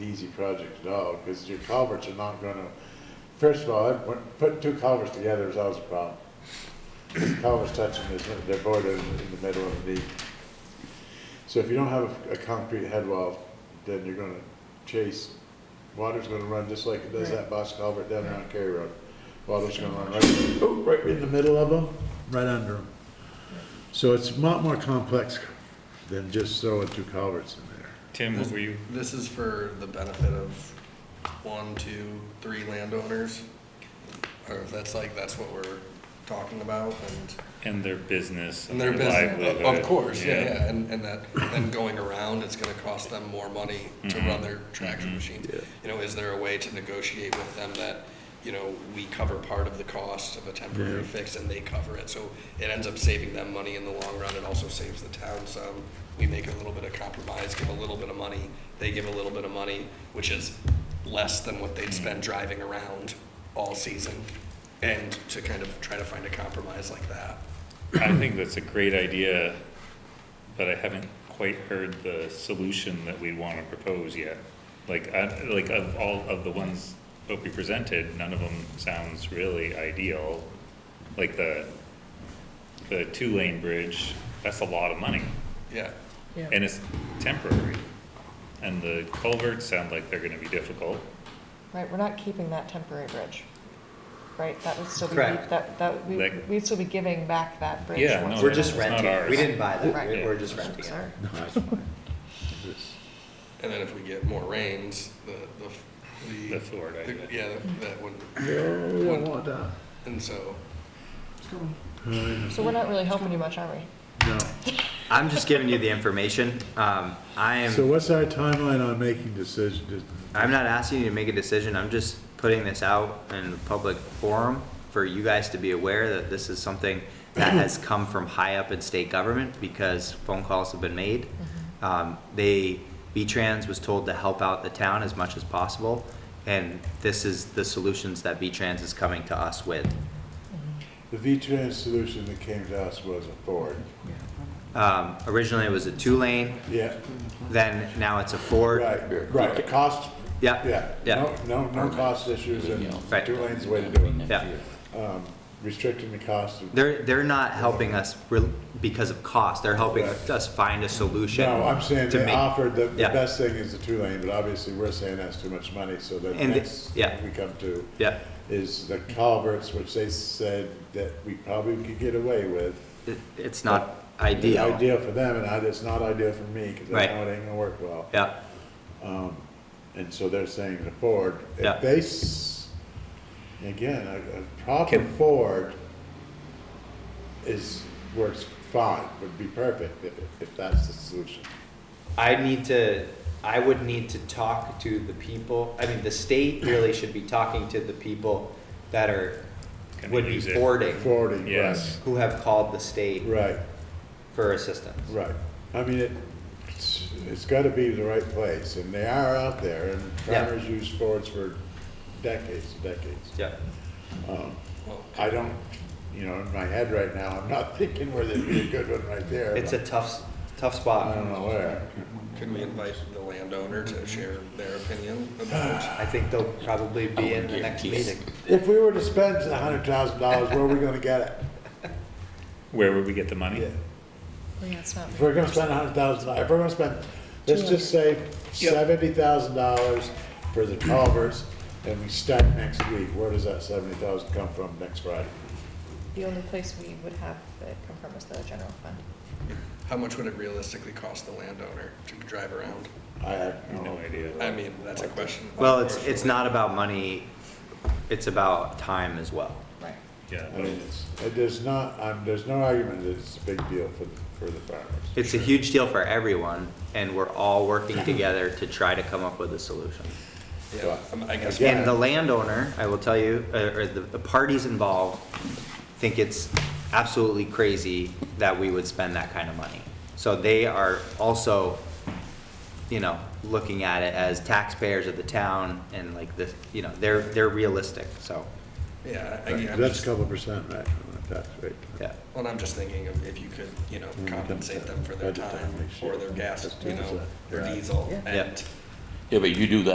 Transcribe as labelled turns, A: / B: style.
A: easy project at all, because your culverts are not gonna, first of all, that- when- putting two culverts together is always a problem. Culverts touching, is- they're bordered in the middle of the deep. So if you don't have a, a concrete head wall, then you're gonna chase, water's gonna run just like it does that box culvert down there on Cary Road. Water's gonna run right, oh, right in the middle of them, right under them. So it's a lot more complex than just throwing two culverts in there.
B: Tim, what were you?
C: This is for the benefit of one, two, three landowners. Or if that's like, that's what we're talking about and,
B: And their business.
C: and their business,
B: livelihood.
C: of course, yeah, yeah. And, and that, then going around, it's gonna cost them more money to run their traction machine. You know, is there a way to negotiate with them that, you know, we cover part of the cost of a temporary fix and they cover it? So it ends up saving them money in the long run. It also saves the town some. We make a little bit of compromise, give a little bit of money, they give a little bit of money, which is less than what they'd spend driving around all season. And to kind of try to find a compromise like that.
B: I think that's a great idea, but I haven't quite heard the solution that we want to propose yet. Like, I, like of all of the ones that we presented, none of them sounds really ideal. Like the, the two-lane bridge, that's a lot of money,
C: Yeah.
B: and it's temporary. And the culverts sound like they're gonna be difficult.
D: Right, we're not keeping that temporary bridge, right? That would still be,
E: Correct.
D: that, that, we-
B: Like-
D: we'd still be giving back that bridge.
B: Yeah,
D: once
B: no,
D: we're
E: We're just
D: done.
B: It's not
E: renting.
B: ours.
E: We didn't buy that.
D: Right.
E: We're- We're just renting it.
D: Sorry.
C: And then if we get more rains, the, the, f- the.
B: The Ford
C: the-
B: idea.
C: Yeah, that wouldn't,
A: No, I want that.
C: and so,
D: So we're not really helping you much, are we?
A: No.
E: I'm just giving you the information. Um, I
A: So
E: am,
A: what's our timeline on making decisions?
E: I'm not asking you to make a decision. I'm just putting this out in public forum for you guys to be aware that this is something that has come from high up in state government because phone calls have been made.
D: Mm-hmm.
E: Um, they, V-Trans was told to help out the town as much as possible. And this is the solutions that V-Trans is coming to us with.
A: The V-Trans solution that came to us was a Ford.
E: Um, originally it was a two-lane,
A: Yeah,
E: then now it's a Ford.
A: right, right, cost,
E: Yeah,
A: yeah.
E: Yeah.
A: No, no, no cost issues and
E: Right.
A: two lanes way to do it.
E: yeah.
A: Um, Restricting the cost. of-
E: They're, they're not helping us re- because of cost, they're helping
A: Right.
E: us find a solution.
A: No, I'm saying
E: to
A: they
E: make-
A: offered, the, the
E: yeah.
A: best thing is the two lane, but obviously we're saying that's too much money, so the
E: And the-
A: next
E: yeah.
A: thing we come to
E: Yeah,
A: is the culverts, which they said that we probably could get away with.
E: it, it's not
A: It's
E: ideal,
A: Ideal for them, and I- it's not ideal for me, because I
E: Right.
A: know it ain't gonna work well.
E: yeah,
A: And so they're saying to Ford,
E: Yeah.
A: if they, s- again, a, a proper Ford is, works fine, would be perfect if, if that's the solution.
E: I need to, I would need to talk to the people, I mean, the state really should be talking to the people that are,
B: Gonna
E: would be
B: use it.
E: Fording,
A: Fording, right,
B: Yes.
E: who have called the state
A: right,
E: for assistance.
A: right. I mean, it, it's, it's gotta be the right place, and they are out there, and
E: Yeah.
A: farmers use Fords for decades, and decades.
E: Yeah,
C: well,
A: I don't, you know, in my head right now, I'm not thinking where there'd be a good one right there.
E: it's a tough, s- tough
A: I
E: spot,
A: don't know where.
C: could we invite the landowner to share their opinion about?
E: I think they'll probably be in the next meeting.
A: If we were to spend a hundred thousand dollars, where are we gonna get it?
B: Where would we get the money?
D: Yeah, it's not.
A: If we're gonna spend a hundred thousand, if we're gonna spend, let's just say seventy thousand dollars for the culverts, and we start next week, where does that seventy thousand come from next Friday?
D: The only place we would have it come from is the general fund.
C: How much would it realistically cost the landowner to drive around?
A: I have no
B: No idea.
C: I mean, that's a question.
E: Well, it's, it's not about money, it's about time as well.
D: Right.
B: Yeah.
A: I mean, it's, it is not, um, there's no argument that it's a big deal for, for the farmers.
E: It's a huge deal for everyone, and we're all working together to try to come up with a solution.
C: Yeah, um, I guess,
A: Yeah.
E: And the landowner, I will tell you, uh, or the, the parties involved, think it's absolutely crazy that we would spend that kind of money. So they are also, you know, looking at it as taxpayers of the town and like the, you know, they're, they're realistic, so,
C: yeah, I- I'm
A: That's a
C: just,
A: couple percent, right, on the tax rate.
E: yeah.
C: well, I'm just thinking of if you could, you know, compensate them for their
A: Budget time
C: time
A: next year.
C: or their gas,
A: That's
C: you know,
A: 10%.
C: their
A: Right.
C: diesel
D: Yeah.
C: and.
F: Yeah, but you do that